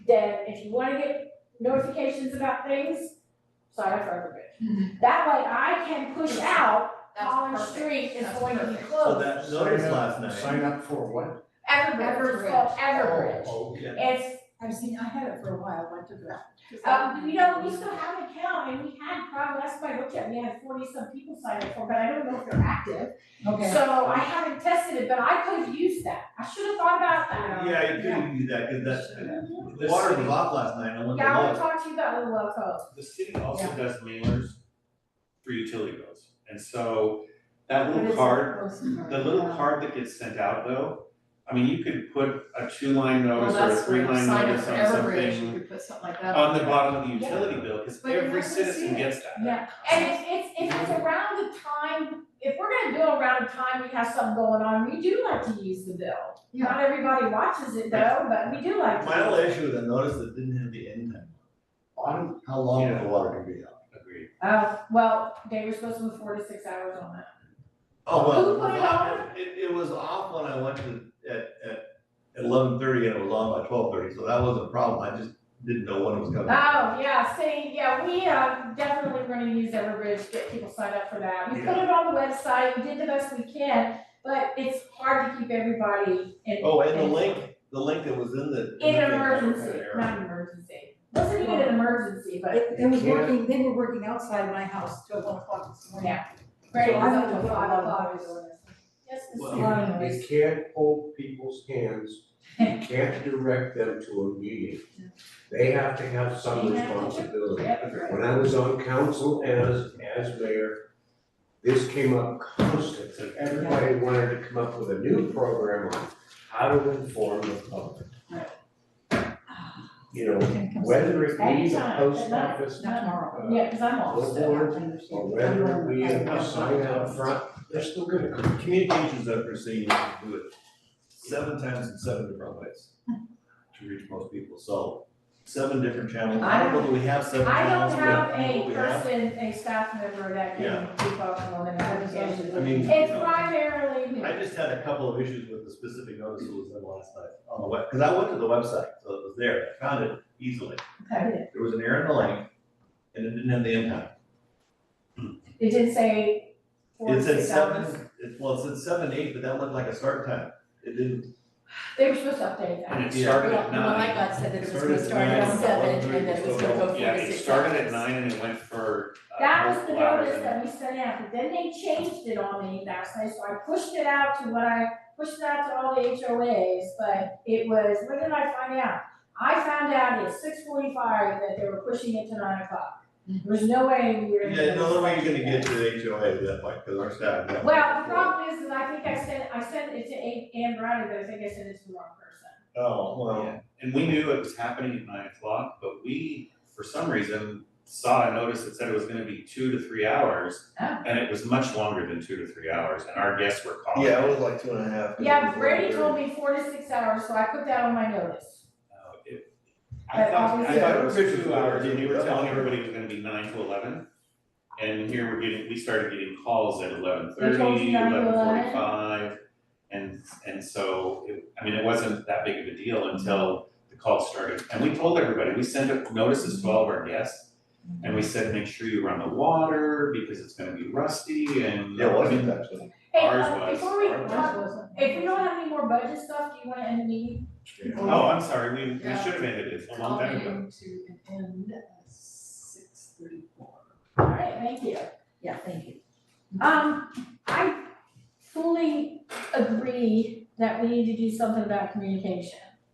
then if you wanna get notifications about things, sign up for everybody. That way I can push out That's Collins perfect. Street is That's going to be perfect. Oh, So closed. that notice Sign up- last night. Sign up for what? Ever- Everbridge it's called Bridge. Everbridge. Oh, okay. It's, I've seen, I had it for a while, went to that. um, you know, we still have an account and we had probably, last time I looked at, we had forty some people sign up for, it, but I don't know if they're active. Okay. So I haven't tested it, but I could have used that. I should have thought about that. Yeah, you could do that, cause that's, Mhm. the water was off last night, I went Yeah, I to wanna look. talk to you about Little Well Cove. The city also does mailers for utility bills, and so that little card, the little card that gets sent out though, I mean, you could put a two-line Well, notice or a that's where three-line sign up notice for on Everbridge, you something could put something like that. on the bottom of the Yeah. utility bill, cause But you're every not gonna see citizen it. gets that. Yeah, and if it's, if it's around the time, if we're gonna do around the time we have something going on, we do like to use the bill. Yeah. Not everybody watches it though, but we do like to. My use only it. issue with that notice, that didn't have the end time. On how long the water can be out? Agreed. Uh, well, they were supposed to be four to six hours on that. Oh, well. Who put it on? It, it was off when I went to, at, at eleven thirty, and it was on by twelve thirty, so that wasn't a problem, I just didn't know when it was coming. Oh, yeah, see, yeah, we, uh, definitely we're gonna use Everbridge, get people signed up for that. We put it on the website, we did the best we can, but it's hard to keep everybody in. Oh, and the link, the link that was in the. In the an thing. emergency, not an emergency. Wasn't even an emergency, but It, it was Yeah. working, they were working outside my house till one o'clock this morning. Yeah. Greg So was I'm up gonna till go five out. o'clock. Yes, it's a Well, lot of noise. You can't hold people's hands, you can't direct them to a meeting. They have to have some They have to- responsibility. Yep. When I was on council as, as mayor, this came up constantly. Everybody wanted to come up with a new program on how to inform the public. You know, whether it be the Anytime, but post not- office Not tomorrow. Yeah, cause I'm off Billboard, still. or whether we have a sign out front, they're still gonna come. Communications efficacy, you can do it seven times in seven different ways to reach most people, so seven different channels, I don't know that we have seven I channels, don't we have, have people a we have. person, a staff member that can keep up on the notifications. I mean. It's you know. primarily me. I just had a couple of issues with the specific notice that was in last night on the web, because I went to the website, so it was there, I found it easily. Okay. There was an error in the link, and it didn't have the impact. It did say four It to said six hours. seven, it, well, it said seven eight, but that looked like a start time. It didn't, They were supposed to update that. And it Yeah. started Well, at well, nine. I got said that it was Started gonna at start nine, at seven eleven and that it was thirty, gonna go four to six hours. Yeah, it started at nine and it went for uh, That was the multiple hours notice and- that we sent out, but then they changed it on me last night, so I pushed it out to what I, pushed it out to all the HOAs, but it was, when did I find out? I found out at six forty-five that they were pushing it to nine o'clock. There's no way we were. gonna yeah, do no, the way this. you're gonna get to the HOA at that point, because our staff. got- Well, the problem is, is I think I sent, I sent it to A- Ann Browning, but I think I sent it to the wrong person. Oh, well, Yeah, and we knew it was happening at nine o'clock, but we, for some reason, saw a notice that said it was gonna be two to three hours. Oh. And it was much longer than two to three hours, and our guests were calling. yeah, it was like two and a half. Yeah, Brady told me four to six hours, so I put that on my notice. Uh, it- I But thought, I obviously- thought it was Pictures two were hours, and we were already telling up. everybody it was gonna be nine to eleven. And here we're getting, we started getting calls at eleven They told you thirty, nine to eleven 11? forty-five. And, and so, it, I mean, it wasn't that big of a deal until the call started, and we told everybody, we sent out notices to all of our guests. And we said, make sure you run the water, because it's gonna be rusty, and. Yeah, it I mean, wasn't actually. Hey, Ours uh, was- before we, ours was- talk- if we don't have any more budget stuff, do you wanna end the meeting? Oh, I'm sorry, we, we should Yeah. have ended it a long time ago. Calling to an end at six thirty-four. All right, thank you. Yeah, thank you. Um, I fully agree that we need to do something about communication.